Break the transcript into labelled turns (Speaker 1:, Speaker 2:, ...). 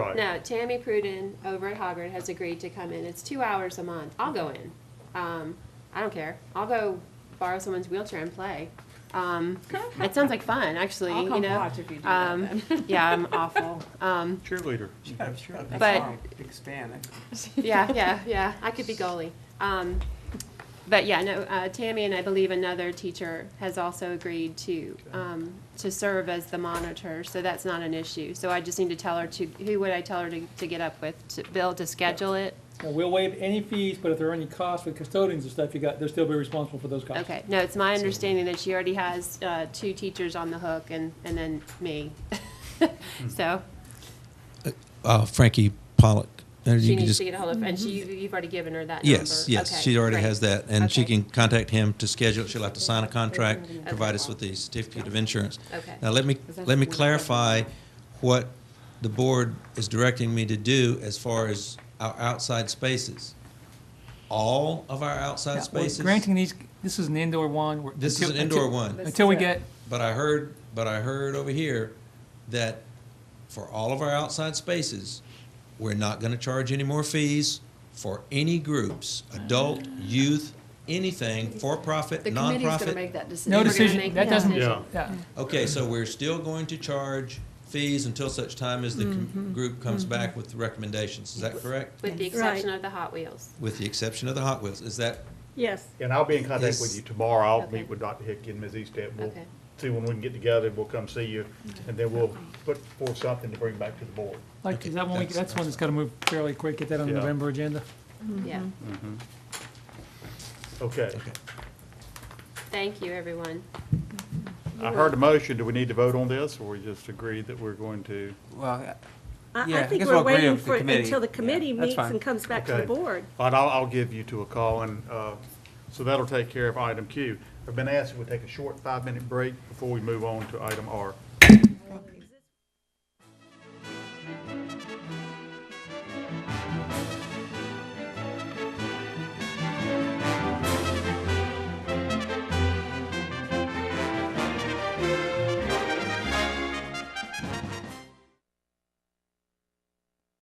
Speaker 1: Right.
Speaker 2: No, Tammy Pruden over at Hoggard has agreed to come in. It's two hours a month. I'll go in. Um, I don't care. I'll go borrow someone's wheelchair and play. Um, it sounds like fun, actually.
Speaker 3: I'll
Speaker 2: you
Speaker 3: come
Speaker 2: know.
Speaker 3: watch if you do that
Speaker 2: um,
Speaker 3: then.
Speaker 2: yeah, I'm awful. Um,
Speaker 1: Cheerleader.
Speaker 4: I'm sure that's
Speaker 2: But-
Speaker 4: how I expand it.
Speaker 2: yeah, yeah, yeah. I could be goalie. Um, but yeah, no. Uh, Tammy and I believe another teacher has also agreed to um, to serve as the monitor, so that's not an issue. So I just need to tell her to who would I tell her to, to get up with? To, Bill to schedule it.
Speaker 5: Now, We'll waive any fees, but if there are any costs with custodians and stuff, you got, they'll still be responsible for those costs.
Speaker 2: Okay, no, it's my understanding that she already has uh, two teachers on the hook and, and then me. So
Speaker 6: uh, Frankie Pollock. And you
Speaker 2: she
Speaker 6: can
Speaker 2: needs
Speaker 6: just-
Speaker 2: to get a hold of, and she,
Speaker 7: Mm-hmm.
Speaker 2: you've already given her that number.
Speaker 6: Yes, yes,
Speaker 2: Okay,
Speaker 6: she already
Speaker 2: great.
Speaker 6: has that, and she
Speaker 2: Okay.
Speaker 6: can contact him to schedule. it. She'll have to sign a contract, provide us with the certificate of insurance.
Speaker 2: Okay.
Speaker 6: Now let me let me clarify what the board is directing me to do as far as our outside spaces. All of our outside
Speaker 8: Yeah, we're
Speaker 6: spaces.
Speaker 8: Granting these, this is an indoor one. we're-
Speaker 6: This is
Speaker 8: until-
Speaker 6: an indoor
Speaker 8: until-
Speaker 6: one.
Speaker 8: Until we get,
Speaker 6: But I heard, but I heard over here that for all of our outside spaces, we're not gonna charge any more fees for any groups, adult, youth, anything, for-profit,
Speaker 7: The committee's gonna
Speaker 6: nonprofit.
Speaker 7: make that decision.
Speaker 8: no
Speaker 2: gonna
Speaker 8: decision,
Speaker 2: make
Speaker 8: that
Speaker 7: that
Speaker 8: doesn't,
Speaker 1: decision.
Speaker 8: yeah.
Speaker 6: Okay, so we're still going to charge fees until such time as the
Speaker 7: Mm-hmm.
Speaker 6: com- group comes back with recommendations, is that correct?
Speaker 2: With the exception of the Hot Wheels.
Speaker 6: With the exception of the Hot Wheels, is that,
Speaker 3: Yes.
Speaker 1: And I'll be in contact
Speaker 6: Yes.
Speaker 1: with you tomorrow. I'll
Speaker 2: Okay.
Speaker 1: meet with Dr. Hickey and Ms. Eastep. We'll
Speaker 2: Okay.
Speaker 1: see when we can get together. We'll come see you. And then we'll put forth something to bring back to the board.
Speaker 8: Like,
Speaker 6: Okay,
Speaker 8: is that one, we-
Speaker 6: that's-
Speaker 8: that's one that's gotta move fairly quick, get that on the
Speaker 1: Yeah.
Speaker 8: November agenda.
Speaker 2: Yeah.
Speaker 7: Mm-hmm.
Speaker 1: Okay.
Speaker 6: okay.
Speaker 2: Thank you, everyone.
Speaker 1: I heard a motion. Do we need to vote on this or we just agree that we're going to?
Speaker 4: Well,
Speaker 3: I,
Speaker 4: Yeah,
Speaker 3: I
Speaker 4: I
Speaker 3: think
Speaker 4: guess
Speaker 3: we're
Speaker 4: we'll agree
Speaker 3: waiting
Speaker 4: with the
Speaker 3: for,
Speaker 4: committee.
Speaker 3: until the
Speaker 4: Yeah,
Speaker 3: committee
Speaker 4: that's
Speaker 3: meets
Speaker 4: fine.
Speaker 3: and comes back to the
Speaker 1: Okay.
Speaker 3: board.
Speaker 1: All right, I'll, I'll give you two a call and, uh, so that'll take care of item Q. I've been asked if we take a short five-minute break before we move on to item R.